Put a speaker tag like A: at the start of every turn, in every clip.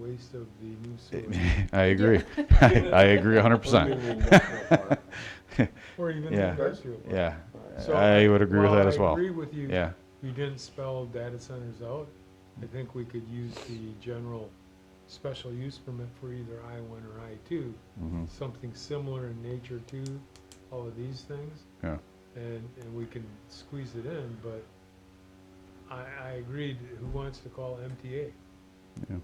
A: waste of the new sewer.
B: I agree. I, I agree hundred
C: Or even the industrial
B: percent.
A: Or even the
B: Yeah.
A: industrial park.
B: Yeah,
A: So
B: I would agree with
A: while
B: that as
A: I
B: well.
A: agree with you.
B: Yeah,
A: You didn't spell data centers out. I think we could use the general special use permit for either I one or I two.
B: mhm,
A: Something similar in nature to all of these things.
B: yeah,
A: and, and we can squeeze it in, but I, I agreed, who wants to call MTA?
B: yeah.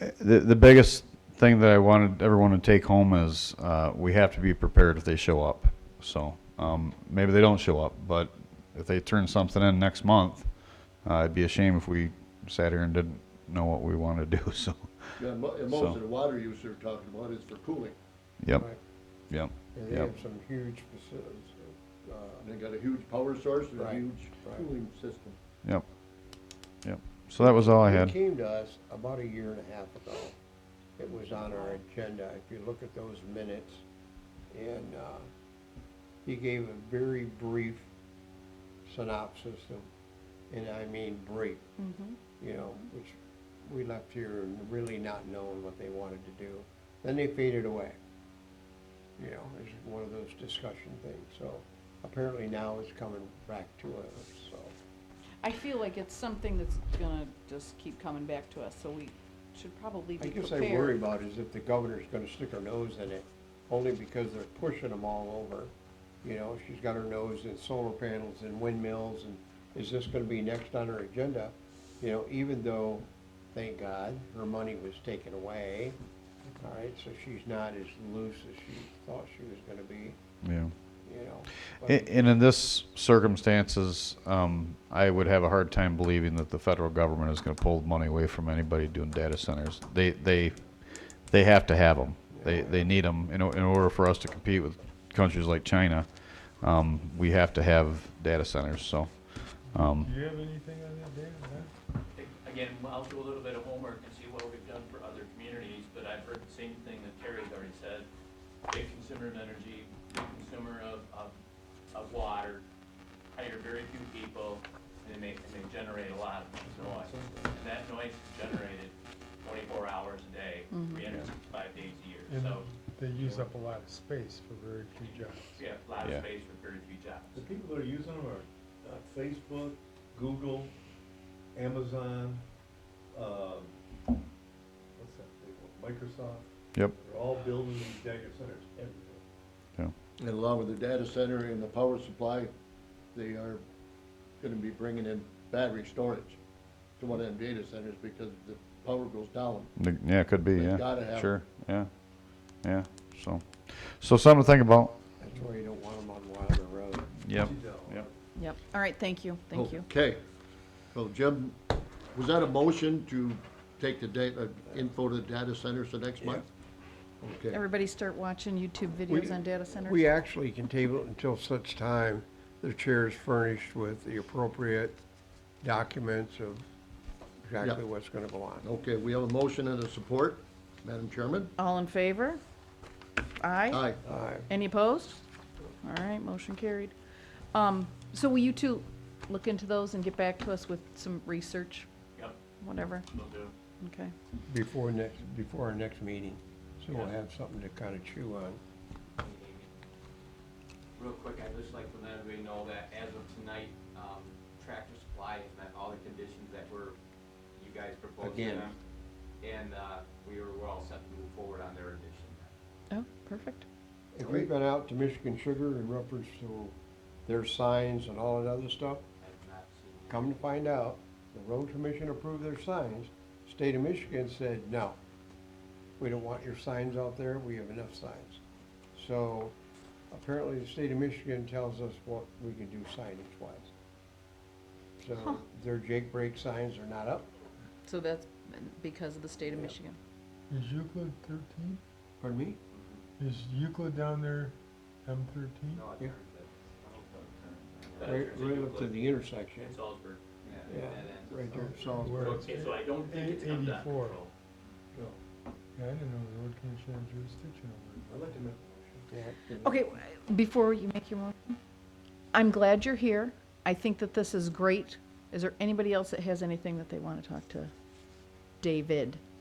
B: Uh, The, the biggest thing that I wanted everyone to take home is, uh, we have to be prepared if they show up. So, um, maybe they don't show up, but if they turn something in next month, uh, it'd be a shame if we sat here and didn't know what we wanted to do, so,
C: Yeah, mo- and
B: So-
C: most of the water use they're talking about is for cooling.
B: yep,
A: Right.
B: yep.
D: And they
B: Yep.
D: have some huge facilities, uh,
C: And they got a huge power source and a
D: Right,
C: huge
D: right.
C: cooling system.
B: Yep. Yep. So that was all I
D: It
B: had.
D: came to us about a year and a half ago. It was on our agenda, if you look at those minutes. And, uh, he gave a very brief synopsis of, and I mean brief, you know, which we left here and really not knowing what they wanted to do. Then they faded away. You know, it's one of those discussion things, so apparently now it's coming back to us, so.
E: I feel like it's something that's gonna just keep coming back to us, so we should probably
D: I
E: be
D: guess
E: prepared.
D: I worry about is if the governor's gonna stick her nose in it, only because they're pushing them all over. You know, she's got her nose in solar panels and windmills, and is this gonna be next on her agenda? You know, even though, thank God, her money was taken away, all right, so she's not as loose as she thought she was gonna be,
B: Yeah.
D: you know. but-
B: A- And in this circumstances, um, I would have a hard time believing that the federal government is gonna pull money away from anybody doing data centers. They, they, they have to have them. They, they need them in, o- in order for us to compete with countries like China. Um, we have to have data centers, so,
A: Do
B: um,
A: you have anything on that, Dan? No?
F: Again, I'll do a little bit of homework and see what we've done for other communities, but I've heard the same thing that Terry's already said. Big consumer of energy, big consumer of, of, of water, hire very few people, and they make, and they generate a lot of noise. And that noise is generated twenty-four hours a day, three hundred and sixty-five days a year,
A: And
F: so
A: they use up a lot of space for very few jobs.
F: we have a lot
B: Yeah.
F: of space for very few jobs.
G: The people that are using them are uh, Facebook, Google, Amazon, um, what's that big one, Microsoft.
B: yep,
G: They're all building these data centers everywhere.
B: yeah.
C: And along with the data center and the power supply, they are gonna be bringing in battery storage to one of them data centers because the power goes down.
B: The- Yeah, it could be,
C: They've
B: yeah.
C: gotta have 'em.
B: Sure, yeah, yeah, so, so something to think about.
D: That's why you don't want them on Wilder Road.
B: Yep,
G: $50.
B: yep.
E: Yep, all right, thank you,
D: Oh.
E: thank you.
C: Okay, so Jim, was that a motion to take the data, info to the data centers the next month? Okay,
E: Everybody start watching YouTube videos on data centers.
D: We actually can table it until such time the chair is furnished with the appropriate documents of exactly
C: Yeah.
D: what's gonna go on.
C: okay, we have a motion and a support, Madam Chairman?
E: All in favor? Aye?
C: Aye.
D: Uh,
E: Any opposed? All right, motion carried. Um, so will you two look into those and get back to us with some research,
F: Yep,
E: whatever?
F: will do.
E: Okay,
D: Before next, before our next meeting, so we'll have something to kinda chew on.
H: Real quick, I'd just like to let everybody know that as of tonight, um, Tractor Supply has met all the conditions that were, you guys proposed to
D: Again.
H: them. And, uh, we were, we're all set to move forward on their addition.
E: oh, perfect.
D: If we've been out to Michigan Sugar in reference to their signs and all that other stuff,
H: I've not seen any-
D: come to find out, the road commission approved their signs, state of Michigan said, no. We don't want your signs out there, we have enough signs. So apparently the state of Michigan tells us what we can do signage wise.
E: Huh.
D: So their Jake Break signs are not up,
E: So that's because of the state of Michigan.
A: Is Euclid thirteen?
D: pardon me,
A: Is Euclid down there M thirteen?
H: No, I've
D: Yeah.
H: heard that.
F: Uh,
D: right,
F: there's a
D: right up to
F: Euclid
D: the intersection.
F: In Salisbury.
D: Yeah,
H: that ends
D: right
H: up-
D: there, so,
A: Where it's-
F: Okay, so I don't think it's under
A: Eighty-four.
F: control.
A: Yeah, I didn't know the road commission had jurisdiction over it.
G: I'd like to make a motion.
D: yeah.
E: Okay, before you make your motion, I'm glad you're here. I think that this is great. Is there anybody else that has anything that they want to talk to? David?